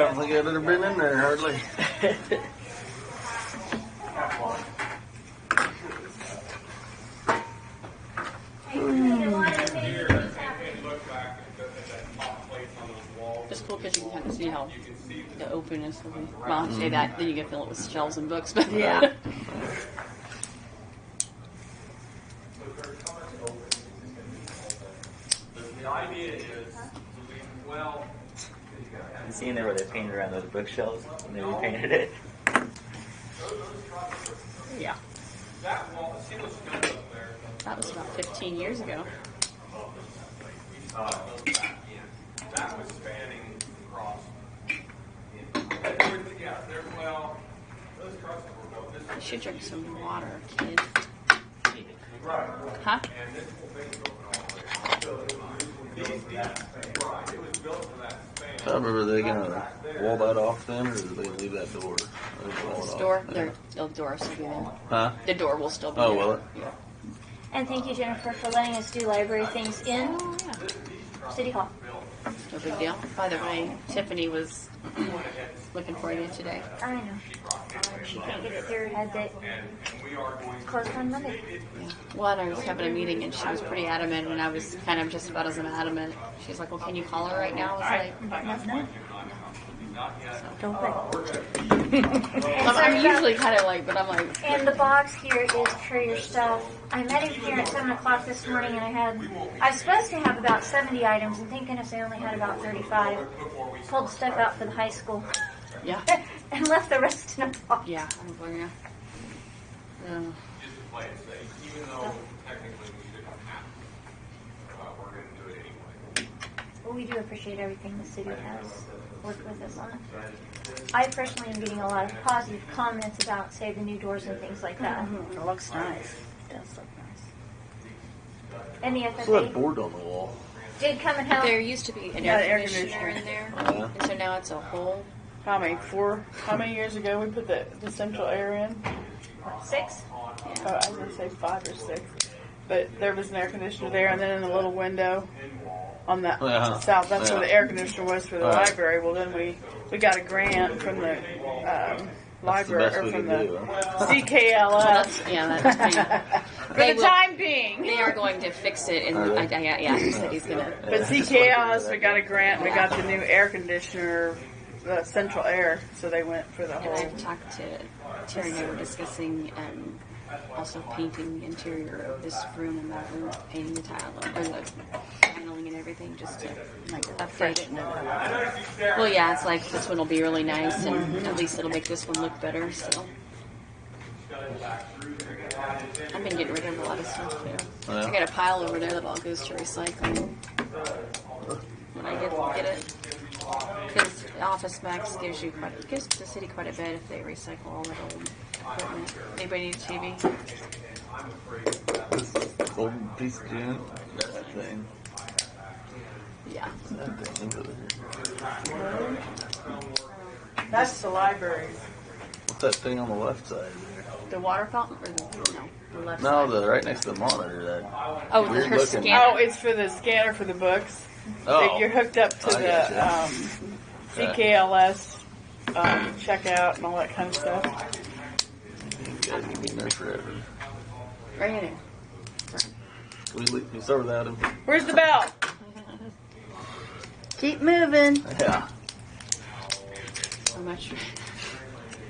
don't think I've ever been in there hardly. Just cool because you can kind of see how the openness of the. Well, I say that, then you can fill it with shelves and books. But Yeah. You seen there where they painted around those bookshelves and they repainted it? Yeah. that was about 15 years ago. That was spanning across. There was, yeah, there, well, those trucks were built this You should drink some water, kid. Right. Huh? And this whole thing's open all the way. These, these, right, it was built for that span. I remember they gonna wall that off then, or did they leave that door? I think they wall it The off. door, there- the door will still be there. Huh? The door will still be Oh, there. will it? Yeah. And thank you, Jennifer, for letting us do library things in Oh, yeah. City Hall. No big deal. By the way, Tiffany was looking for you today. I know. She can't get it through her head that closed on Monday. Yeah. Well, and I was having a meeting and she was pretty adamant, and I was kind of just about as adamant. She's like, "Well, can you call her right now?" I was like, No, Don't let. I'm, "I'm usually kind of like, but I'm like, And the box here is for your stuff. I met him here at seven o'clock this morning, and I had I was supposed to have about seventy items, and thank goodness I only had about thirty-five. Pulled stuff out for the high school "Yeah, and left the rest in a box. yeah, I don't blame you." Uh, Just to play it safe, even though technically we didn't have to. Uh, we're gonna do it anyway. Well, we do appreciate everything the city has worked with us on. I personally am getting a lot of positive comments about, say, the new doors and things like that. Mm-hmm. It looks nice. It does look nice. And the What's that FFA board on the wall? did come and help. there used to be an Yeah, air air conditioner in there, and so now it's a whole. How many four? How many years ago we put the, the central air in? Six? Oh, I was gonna say five or six, but there was an air conditioner there, and then in the little window on the Uh-huh. south, that's where the Yeah. air conditioner was for the Right. library. Well, then we we got a grant from the um, That's the library best or we from could the do, huh? CKLS That's, yeah, that's pretty, for They the will- time being. they are going to fix it, and Are I, they? I, yeah, yeah, he said he's gonna. But CKLS, we got a grant. We got the new air conditioner, the central air. So they went for the And whole. I've talked to Terry and I were discussing um, also painting the interior of this room and that room, painting the tile or the paneling and everything just to Like update it. freshen it up. Well, yeah, it's like this one will be really nice and at least it'll make this one look better. So I've been getting rid of a lot of stuff too. Oh, Yeah. I got a pile over there that all goes to recycling when I get get it. Because Office Max gives you quite gives the city quite a bit if they recycle all that old equipment. Anybody need a TV? This golden piece of gin. That thing. Yeah. That thing over there. That's the library. What's that thing on the left side there? The water fountain or the no the left No, side. the right next to the monitor. That. oh the weird her looking- Oh, scanner. it's for the scanner for the books. Oh. You're hooked up to I the gotcha. um, CKLS um, checkout and all that kind of stuff. Yeah, you've been there forever. Right here. Can we leave can we start without him? Where's the bell? Keep moving. Yeah. So much.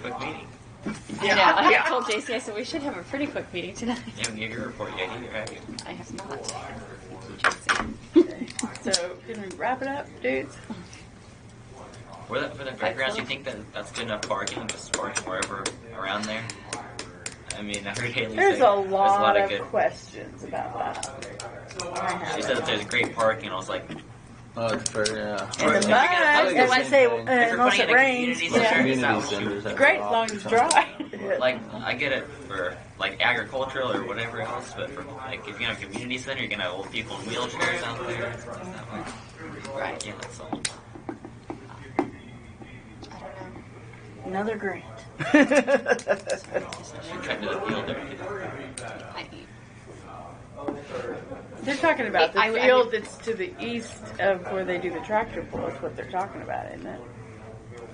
Quick meeting. I know. I yeah. told JC I said we should have a pretty quick meeting tonight. You haven't given your report yet either, have you? I have not. Thank you, JC. So can we wrap it up, dudes? For that, for that fairgrounds, you think that that's good enough parking, just parking wherever around there? I mean, I heard Haley There's say a lot of there's a lot of questions about that. I good. have She it. said that there's great parking, and I was like, Oh, it's fair, yeah. And the I mud, think and it's when the say, same thing. uh, if you're unless putting it in a community rains, center, yeah. is Community that what you- centers have great an as long as office or it's dry. Like, I get it for like agricultural or whatever else, but for like if you have a community center, you're gonna have old people in wheelchairs out there. It's not like- Right. Yeah, that's all. I don't know. Another grant. She tried to the field there. I eat. they're talking about the I- I- field that's to the east of where they do the tractor pull. That's what they're talking about, isn't it?